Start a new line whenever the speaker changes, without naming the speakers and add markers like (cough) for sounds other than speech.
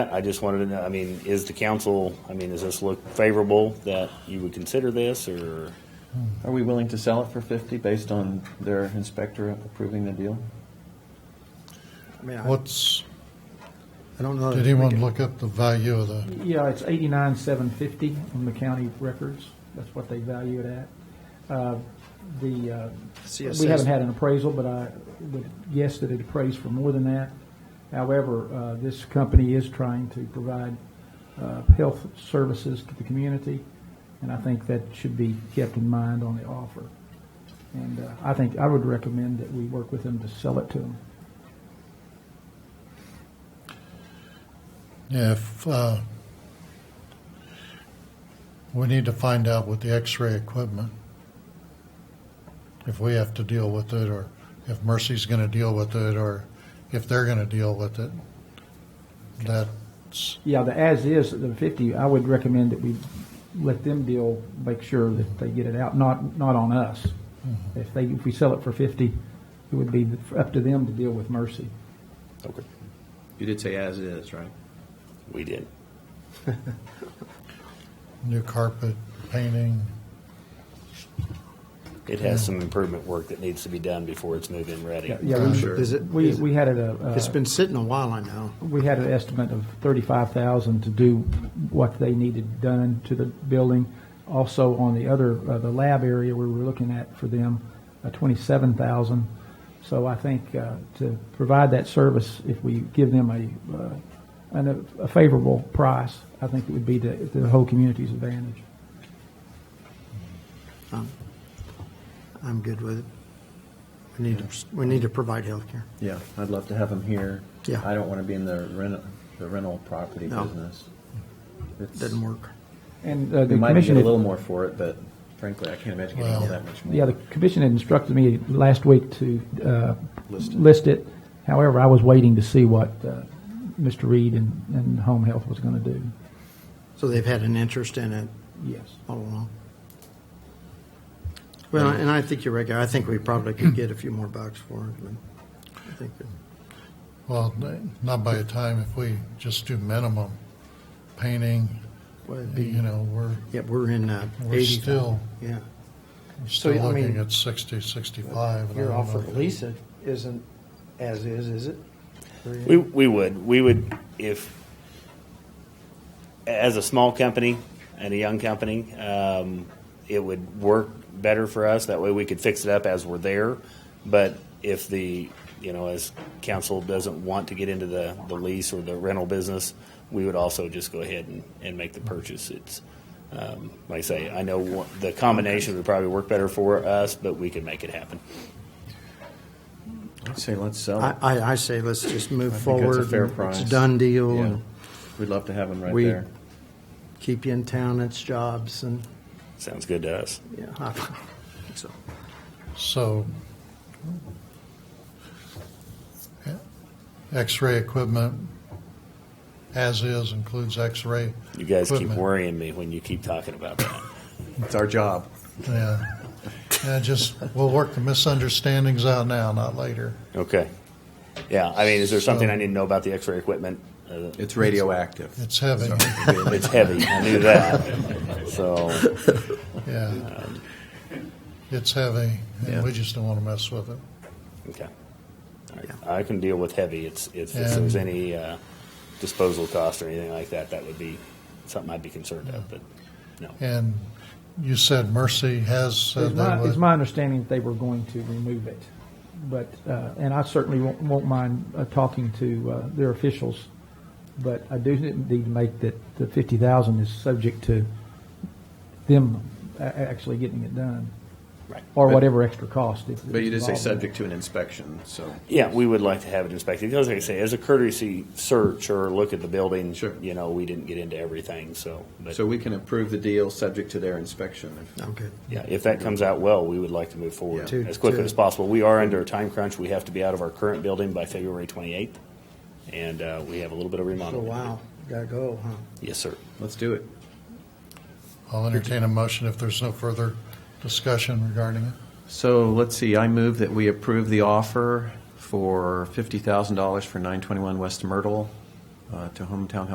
I just wanted to know, I mean, is the council, I mean, does this look favorable that you would consider this or?
Are we willing to sell it for 50 based on their inspector approving the deal?
I mean, I
What's,
I don't know.
did anyone look up the value of the,
Yeah, it's eighty-nine, seven fifty on the county records. That's what they value it at. Uh, The, uh, we haven't had an appraisal, but I would guess that it appraised for more than that. However, uh, this company is trying to provide uh, health services to the community, and I think that should be kept in mind on the offer. And uh, I think, I would recommend that we work with them to sell it to them.
yeah, if, uh, we need to find out with the x-ray equipment, if we have to deal with it, or if Mercy's gonna deal with it, or if they're gonna deal with it. That's,
Yeah, the as-is, the 50, I would recommend that we let them deal, make sure that they get it out, not, not on us.
Mm-hmm.
If they, if we sell it for 50, it would be up to them to deal with Mercy.
Okay.
You did say as is, right?
We did.
new carpet, painting,
It has some improvement work that needs to be done before it's move-in ready.
Yeah, yeah, we-
Sure.
Is it,
we,
is it-
we had it a, uh,
it's been sitting a while, I know.
we had an estimate of 35,000 to do what they needed done to the building. Also, on the other, uh, the lab area, we were looking at for them, uh, 27,000. So I think uh, to provide that service, if we give them a, uh, an- a favorable price, I think it would be to to the whole community's advantage.
I'm good with it. We need to, we need to provide health care.
Yeah, I'd love to have them here.
Yeah.
I don't want to be in the rental, the rental property
No.
business. It's-
Doesn't work.
And uh,
We
the
might get a
commission,
little more for it, but frankly, I can't imagine getting all
Well-
that much more.
yeah, the commission had instructed me last week to uh,
List it.
list it. However, I was waiting to see what uh, Mr. Reed and, and Home Health was going to do.
So they've had an interest in it
Yes.
all along. Well, and I think you're right, Gary. I think we probably could get a few more bucks for it, but I think that.
well, not by the time, if we just do minimum painting,
well, it'd be-
you know, we're,
Yeah, we're in uh,
We're
eighty.
still-
Yeah.
still
I mean-
looking at sixty, sixty-five. and I
Your
don't
offer
know
to
if-
lease it isn't as is, is it?
We, we would, we would, if, as a small company and a young company, um, it would work better for us. That way we could fix it up as we're there. But if the, you know, as council doesn't want to get into the, the lease or the rental business, we would also just go ahead and, and make the purchase. It's, um, like I say, I know one- the combination would probably work better for us, but we could make it happen.
I'd say let's sell
I,
it.
I, I say let's just move
I think
forward.
that's a fair
and
price.
It's a done deal
Yeah.
and
We'd love to have them right
We-
there.
keep you in town. It's jobs and
Sounds good to us.
yeah. (laughs) I think so.
So, yeah, x-ray equipment, as is, includes x-ray.
You guys keep
equipment.
worrying me when you keep talking about that.
It's our job.
Yeah. Yeah, just, we'll work the misunderstandings out now, not later.
Okay. Yeah, I mean, is there something
So-
I need to know about the X-ray equipment? Uh,
It's radioactive.
It's heavy,
it's heavy. I knew that. So,
yeah. It's heavy, and we just don't want to mess with it.
okay. I, I can deal with heavy. It's, it's if
Yeah.
there's any uh, disposal cost or anything like that, that would be something I'd be concerned of. But no.
And you said Mercy has said
It's
they
my,
would.
it's my understanding that they were going to remove it, but, uh, and I certainly won't, won't mind uh, talking to, uh, their officials, but I do need to make that the fifty thousand is subject to them a- actually getting it done.
Right.
Or whatever extra cost. if-
But you did say
involved in that.
subject to an inspection, so.
Yeah, we would like to have it inspected. Because like I say, as a courtesy search or look at the building,
Sure.
you know, we didn't get into everything. So, but
So we can approve the deal subject to their inspection. if-
I'm good.
Yeah, if that comes out well, we would like to move forward
Yeah. To-
as quickly
to-
as possible. We are under a time crunch. We have to be out of our current building by February 28th, and uh, we have a little bit of
So
remodeling.
Oh, wow, gotta go, huh?
Yes, sir.
Let's do it.
I'll entertain a motion if there's no further discussion regarding it.
So let's see, I move that we approve the offer for $50,000 for 921 West Myrtle uh, to Hometown Health